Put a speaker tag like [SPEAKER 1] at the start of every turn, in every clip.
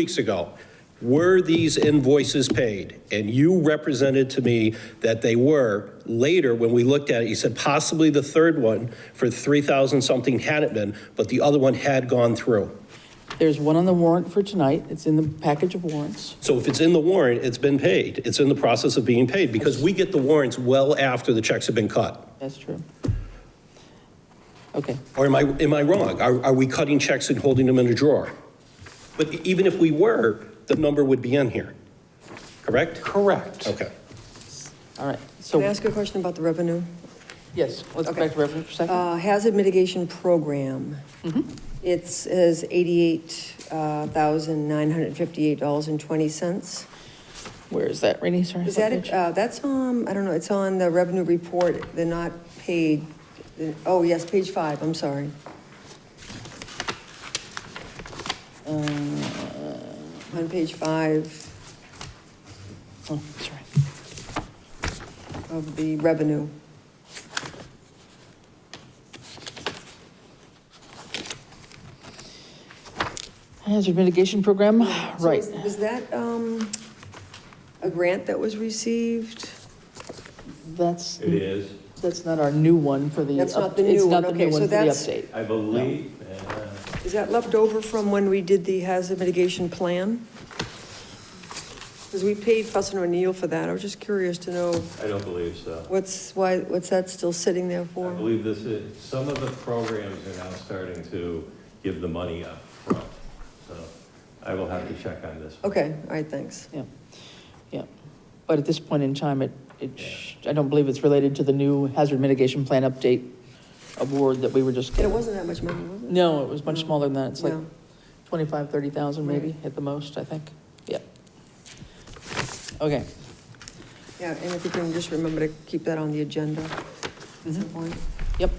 [SPEAKER 1] weeks ago, were these invoices paid? And you represented to me that they were. Later, when we looked at it, you said possibly the third one for 3,000 something hadn't been, but the other one had gone through.
[SPEAKER 2] There's one on the warrant for tonight. It's in the package of warrants.
[SPEAKER 1] So if it's in the warrant, it's been paid. It's in the process of being paid because we get the warrants well after the checks have been cut.
[SPEAKER 2] That's true. Okay,
[SPEAKER 1] Or am I, am I wrong? Are, are we cutting checks and holding them in a drawer? But even if we were, the number would be in here, correct? Correct. Okay.
[SPEAKER 2] all right.
[SPEAKER 3] Can I
[SPEAKER 2] So,
[SPEAKER 3] ask a question about the revenue?
[SPEAKER 2] yes, let's go
[SPEAKER 3] Okay.
[SPEAKER 2] back to revenue for a second.
[SPEAKER 3] Uh, Hazard mitigation program. It says $88,958.20.
[SPEAKER 2] Where is that, Rainey? Sorry. what
[SPEAKER 3] Is that, it?
[SPEAKER 2] page?
[SPEAKER 3] Uh, that's, um, I don't know, it's on the revenue report, they're not paid, oh, yes, page five, I'm sorry. Uh, On page five
[SPEAKER 2] Oh, sorry.
[SPEAKER 3] of the revenue.
[SPEAKER 2] Hazard mitigation program,
[SPEAKER 3] So
[SPEAKER 2] right.
[SPEAKER 3] is- Was that um, a grant that was received?
[SPEAKER 2] That's,
[SPEAKER 4] It is.
[SPEAKER 2] that's not our new one for the.
[SPEAKER 3] That's
[SPEAKER 2] up-
[SPEAKER 3] not the new one. Okay, so
[SPEAKER 2] It's
[SPEAKER 3] that's-
[SPEAKER 2] not the new one for the update.
[SPEAKER 4] I believe, uh,
[SPEAKER 3] Is that left over from when we did the hazard mitigation plan? Because we paid Fussin' O'Neill for that. I was just curious to know
[SPEAKER 4] I don't believe so.
[SPEAKER 3] what's, why, what's that still sitting there
[SPEAKER 4] I
[SPEAKER 3] for?
[SPEAKER 4] believe this is, some of the programs are now starting to give the money up front. So I will have to check on this. one.
[SPEAKER 3] Okay, all right, thanks.
[SPEAKER 2] Yeah, yeah. But at this point in time, it, it, sh- I don't believe it's related to the new hazard mitigation plan update award that we were just.
[SPEAKER 3] And it wasn't that much money, was it?
[SPEAKER 2] No, it was much smaller than that. It's like
[SPEAKER 3] No.
[SPEAKER 2] 25, 30,000 maybe
[SPEAKER 3] Right.
[SPEAKER 2] at the most, I think. Yeah. Okay.
[SPEAKER 3] Yeah, and if you can just remember to keep that on the agenda at some point.
[SPEAKER 2] Yep.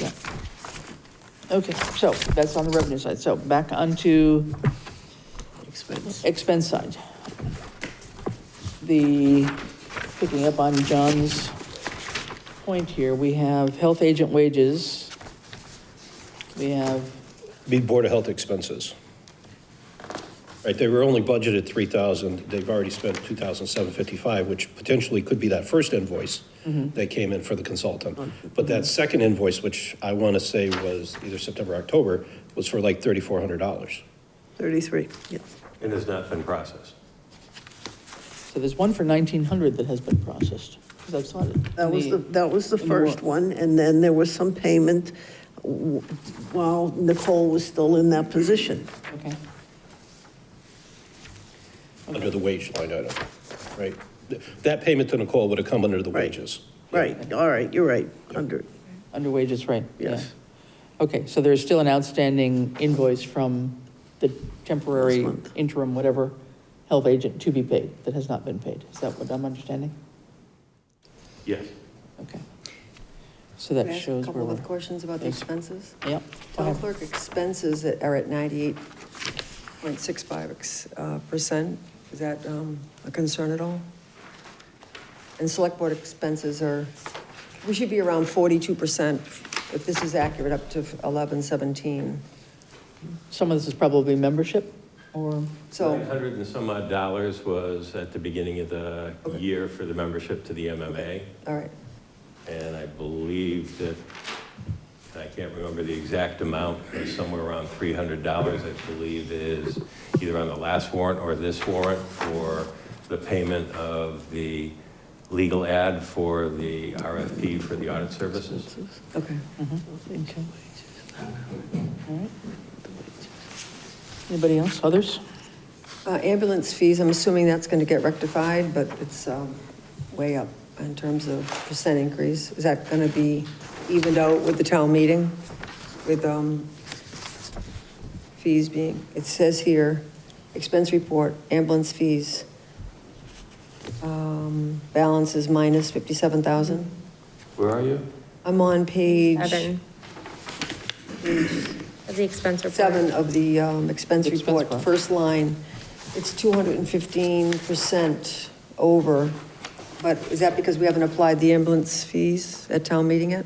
[SPEAKER 2] Yeah. Okay, so that's on the revenue side. So back onto
[SPEAKER 3] Expense.
[SPEAKER 2] expense side. The, picking up on John's point here, we have health agent wages. We have,
[SPEAKER 1] Be Board of Health expenses. Right, they were only budgeted 3,000, they've already spent 2,755, which potentially could be that first invoice that came in for the consultant. But that second invoice, which I want to say was either September, or October, was for like $3,400.
[SPEAKER 3] 33, yeah.
[SPEAKER 4] It has not been processed.
[SPEAKER 2] so there's one for 1,900 that has been processed. 'cause I saw it.
[SPEAKER 5] That was the, that was the
[SPEAKER 2] in the warrant.
[SPEAKER 5] first one, and then there was some payment w- while Nicole was still in that position.
[SPEAKER 2] Okay.
[SPEAKER 1] under the wage line item, right? Th- That payment to Nicole would have come under the
[SPEAKER 5] Right.
[SPEAKER 1] wages.
[SPEAKER 5] Right, all right, you're right, under,
[SPEAKER 2] Under wages, right? yeah.
[SPEAKER 5] Yes.
[SPEAKER 2] Okay, so there's still an outstanding invoice from the temporary
[SPEAKER 5] This month.
[SPEAKER 2] interim, whatever, health agent to be paid that has not been paid. Is that what I'm understanding?
[SPEAKER 4] Yes.
[SPEAKER 2] Okay. So that
[SPEAKER 3] A
[SPEAKER 2] shows where
[SPEAKER 3] couple
[SPEAKER 2] we're.
[SPEAKER 3] of questions about the
[SPEAKER 2] Yes.
[SPEAKER 3] expenses.
[SPEAKER 2] Yep. go
[SPEAKER 3] Town
[SPEAKER 2] ahead.
[SPEAKER 3] clerk expenses that are at 98.65 percent, is that um, a concern at all? And select board expenses are, we should be around 42 percent, if this is accurate, up to 1117.
[SPEAKER 2] Some of this is probably membership or,
[SPEAKER 4] Nine
[SPEAKER 3] So,
[SPEAKER 4] hundred and some odd dollars was at the beginning of the year for the membership to the MMA.
[SPEAKER 3] all right,
[SPEAKER 4] And I believe that, I can't remember the exact amount, but somewhere around $300, I believe, is either on the last warrant or this warrant for the payment of the legal ad for the RFP for the audit services.
[SPEAKER 3] okay.
[SPEAKER 2] okay. All right. Anybody else, others?
[SPEAKER 3] Uh, Ambulance fees, I'm assuming that's going to get rectified, but it's um, way up in terms of percent increase. Is that going to be evened out with the town meeting, with um, fees being, it says here, expense report, ambulance fees, um, balance is minus 57,000.
[SPEAKER 4] Where are you?
[SPEAKER 3] I'm on page
[SPEAKER 6] Seven. Of the expense report.
[SPEAKER 3] seven of the um, expense
[SPEAKER 2] Expense
[SPEAKER 3] report,
[SPEAKER 2] report.
[SPEAKER 3] first line, it's 215% over, but is that because we haven't applied the ambulance fees at town meeting yet?